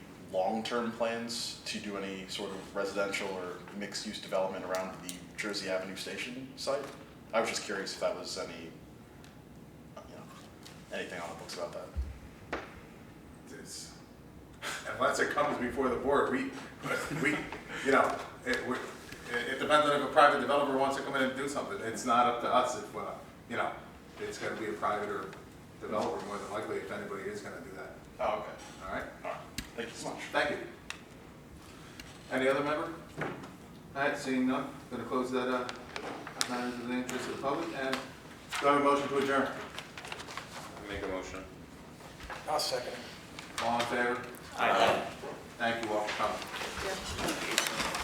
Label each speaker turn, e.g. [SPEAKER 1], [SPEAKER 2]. [SPEAKER 1] long-term plans to do any sort of residential or mixed-use development around the Jersey Avenue Station site? I was just curious if that was any, you know, anything on the books about that.
[SPEAKER 2] It's- Unless it comes before the board, we, we, you know, it, we, it it depends on if a private developer wants to come in and do something. It's not up to us if, uh, you know, it's gonna be a private or developer more than likely if anybody is gonna do that,
[SPEAKER 1] Oh, okay.
[SPEAKER 2] all right?
[SPEAKER 1] All right, thank you so much.
[SPEAKER 2] Thank you. Any other member? All right, seeing none, gonna close that, uh, matters of the interest of the public, and do I have a motion to adjourn?
[SPEAKER 3] Make a motion.
[SPEAKER 4] I'll second.
[SPEAKER 2] All in favor?
[SPEAKER 3] Aye.
[SPEAKER 2] Thank you all for coming.